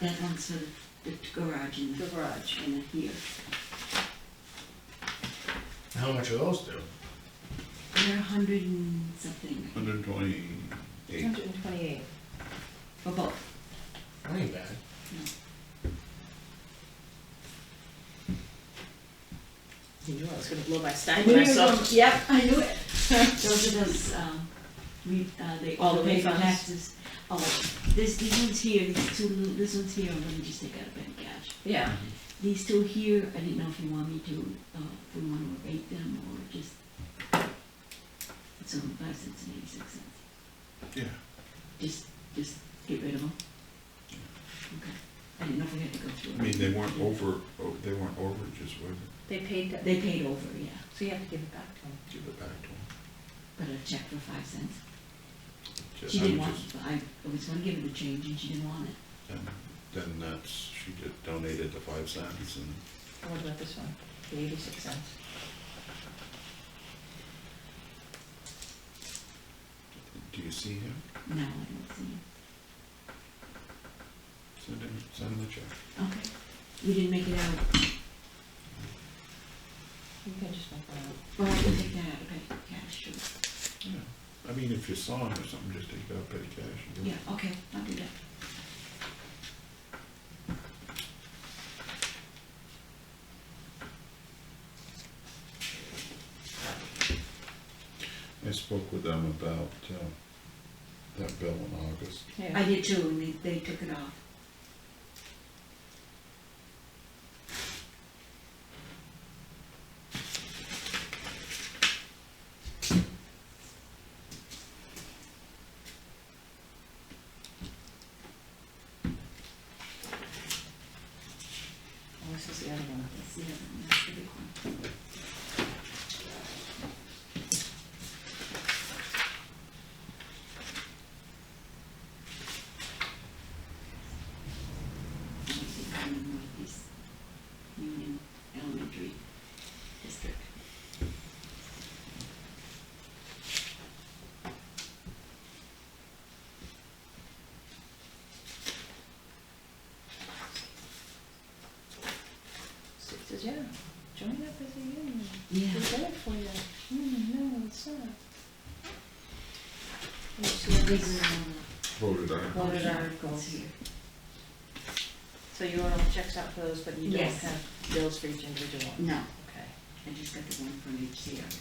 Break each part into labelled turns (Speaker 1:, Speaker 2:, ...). Speaker 1: That one's a, the garage in, the-
Speaker 2: garage.
Speaker 1: in here.
Speaker 3: How much are those do?
Speaker 1: They're a hundred and something,
Speaker 4: Hundred and twenty-eight.
Speaker 2: Hundred and twenty-eight.
Speaker 1: for both.
Speaker 3: That ain't bad.
Speaker 2: You knew I was gonna blow my stack
Speaker 1: knew you were
Speaker 2: myself.
Speaker 1: gonna-
Speaker 2: Yep, I knew it.
Speaker 1: Those are those, um, we, uh, they,
Speaker 2: All
Speaker 1: all
Speaker 2: the
Speaker 1: the
Speaker 2: way
Speaker 1: paper
Speaker 2: funds.
Speaker 1: taxes. Oh, this, these ones here, these two, little- this one's here, let me just take out a bank cash.
Speaker 2: Yeah.
Speaker 1: These two here, I didn't know if you want me to, uh, if we wanna abate them or just. It's only five cents and eighty-six cents.
Speaker 4: Yeah.
Speaker 1: Just, just get rid of them? Okay. I didn't know if we had to go through.
Speaker 4: I mean, they weren't over, oh, they weren't overages, were
Speaker 2: They paid that,
Speaker 1: They paid over, yeah,
Speaker 2: so you have to give it back to them.
Speaker 4: they? Give it back to
Speaker 1: but a check for five cents.
Speaker 4: them.
Speaker 1: She didn't want, I I was gonna give her the change and she didn't want it.
Speaker 4: Then that's, she did- donated the five cents and
Speaker 2: And What about this one? The eighty-six cents.
Speaker 4: Do you see him?
Speaker 1: No, I don't see it.
Speaker 4: Send him, send him the check.
Speaker 1: Okay. We didn't make it out.
Speaker 2: You can just make that out.
Speaker 1: Well, I can take that out, okay, yeah, sure.
Speaker 4: Yeah. I mean, if you saw him or something, just take out petty cash. and give it.
Speaker 1: Yeah, okay, I'll do that.
Speaker 4: I spoke with them about uh, that bill in August.
Speaker 1: I
Speaker 2: Yeah.
Speaker 1: did too, and they, they took it off.
Speaker 2: Oh, this is the other one.
Speaker 1: That's the other one, that's the big one. I think I'm in Northeast Union Elementary District.
Speaker 2: So it says, yeah, join up as a union.
Speaker 1: Yeah.
Speaker 2: We've done it for you. Mm, no, it's not. And so
Speaker 1: These
Speaker 2: these
Speaker 1: are all
Speaker 4: Voted on.
Speaker 1: the
Speaker 2: Voted on.
Speaker 1: articles here.
Speaker 2: So you want all checks out for those, but you don't
Speaker 1: Yes.
Speaker 2: have bills for each individual one?
Speaker 1: No,
Speaker 2: Okay.
Speaker 1: I just got the one from HCRS.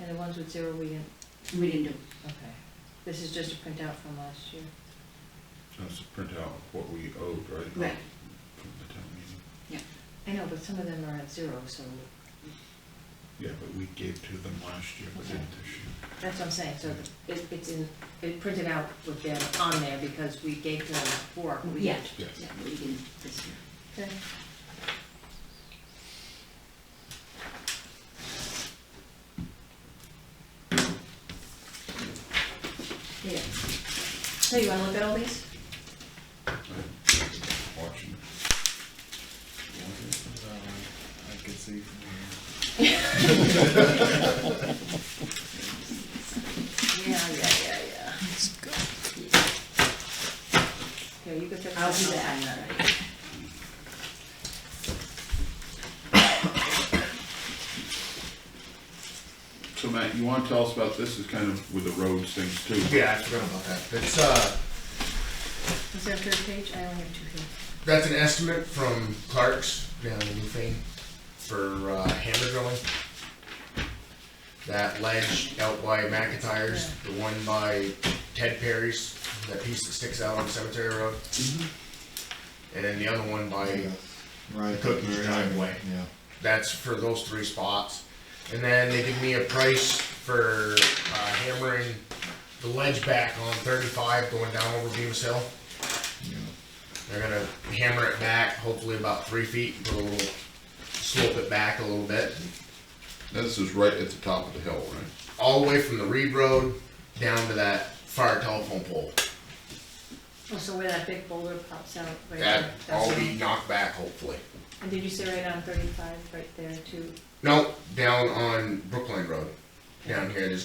Speaker 2: And the ones with zero, we didn't,
Speaker 1: We didn't do it.
Speaker 2: okay. This is just a printout from last year.
Speaker 4: That's a printout of what we owed, right?
Speaker 1: Right.
Speaker 4: From the town meeting.
Speaker 2: I know, but some of them are at zero, so
Speaker 4: Yeah, but we gave to them last year, but didn't this year.
Speaker 2: that's what I'm saying, so it, it's in, it printed out with them on there because we gave to them four. we
Speaker 1: Yeah,
Speaker 2: didn't.
Speaker 4: Yes.
Speaker 1: yeah, we didn't this year.
Speaker 2: Okay. Yeah. So you wanna look at all these?
Speaker 4: I'm Watching.
Speaker 3: Um, I could see from here.
Speaker 2: Yeah, yeah, yeah, yeah. Here, you can pick.
Speaker 1: I'll do
Speaker 2: some up.
Speaker 1: that.
Speaker 4: So Matt, you wanna tell us about this, is kind of with the roads things too?
Speaker 3: Yeah, I forgot about that. It's, uh,
Speaker 2: Is there a third page? I only have two here.
Speaker 3: that's an estimate from Clark's down in Newfane for uh, hammer drilling. That ledge out by McIntyre's, the one by Ted Perry's, that piece that sticks out on Cemetery Road. And then the other one by
Speaker 5: Right.
Speaker 3: Cookie's
Speaker 5: Mary Ann,
Speaker 3: driveway.
Speaker 5: Yeah.
Speaker 3: That's for those three spots. And then they give me a price for uh, hammering the ledge back on 35 going down over Beavis Hill. They're gonna hammer it back, hopefully about three feet, put a little, slope it back a little bit.
Speaker 4: This is right at the top of the hill, right?
Speaker 3: All the way from the Reed Road down to that fire telephone pole.
Speaker 2: Oh, so where that big boulder pops out right there?
Speaker 3: That all
Speaker 2: that's
Speaker 3: be
Speaker 2: it.
Speaker 3: knocked back hopefully.
Speaker 2: And did you say right on thirty-five, right there too?
Speaker 3: No, down on Brookline Road, down here, there's